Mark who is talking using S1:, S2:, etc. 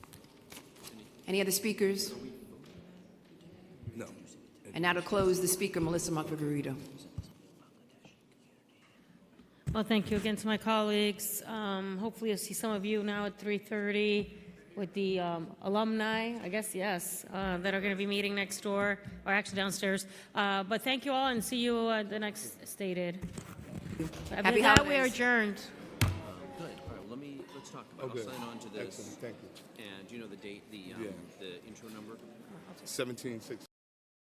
S1: Any other speakers?
S2: No.
S1: And now to close, the speaker, Melissa Montfigueredo.
S3: Well, thank you again to my colleagues. Um, hopefully, you'll see some of you now at 3:30 with the um, alumni. I guess yes, uh, that are going to be meeting next door or actually downstairs. Uh, but thank you all, and see you at the next stated.
S1: Happy
S3: With that, we are
S1: holidays.
S3: adjourned.
S4: Good, all right, well, let me, let's talk
S2: Oh,
S4: about it.
S2: good.
S4: I'll sign on to this.
S2: Excellent, thank you.
S4: And do you know the date, the, um,
S2: Yeah.
S4: the intro number?
S2: 17, 16.